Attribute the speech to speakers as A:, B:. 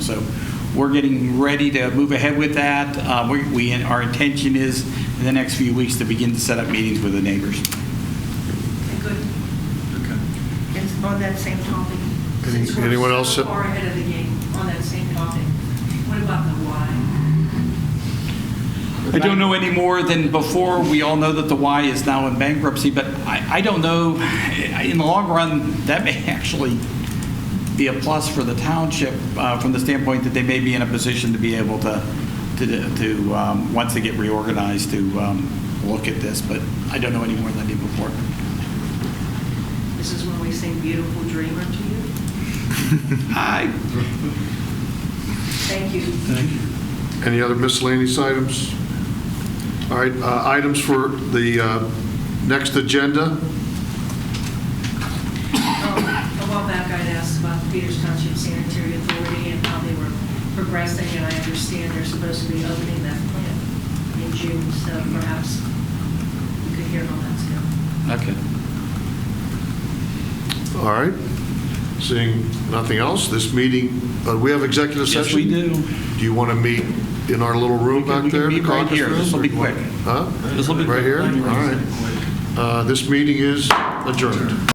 A: So we're getting ready to move ahead with that. Uh, we- We, our intention is in the next few weeks to begin to set up meetings with the neighbors.
B: Good. And on that same topic.
C: Any-
B: since we're
C: anyone
B: so
C: else?
B: Far ahead of the game on that same topic. What about the why?
A: I don't know any more than before. We all know that the Y is now in bankruptcy, but I, I don't know, eh, in the long run, that may actually be a plus for the township uh, from the standpoint that they may be in a position to be able to, to, to um, once they get reorganized, to um, look at this, but I don't know any more than I did before.
B: This is when we sing Beautiful Dreamer to you.
A: I,
B: Thank you.
C: Any other miscellaneous items? All right, uh, items for the uh, next agenda.
B: Um, A while back, I'd asked about the Peters Township Sanitary Authority and how they were progressing, and I understand they're supposed to be opening that plant in June, so perhaps we could hear how that's going.
A: okay.
C: All right, seeing nothing else, this meeting, uh, we have executive session?
A: Yes, we do.
C: Do you want to meet in our little room
A: We can-
C: back
A: we can
C: there? the
A: meet right
C: caucus
A: here.
C: room,
A: This'll
C: or
A: be
C: do you want-
A: quick.
C: Huh?
A: This'll be
C: Right
A: quick.
C: here? All right. Uh, This meeting is adjourned.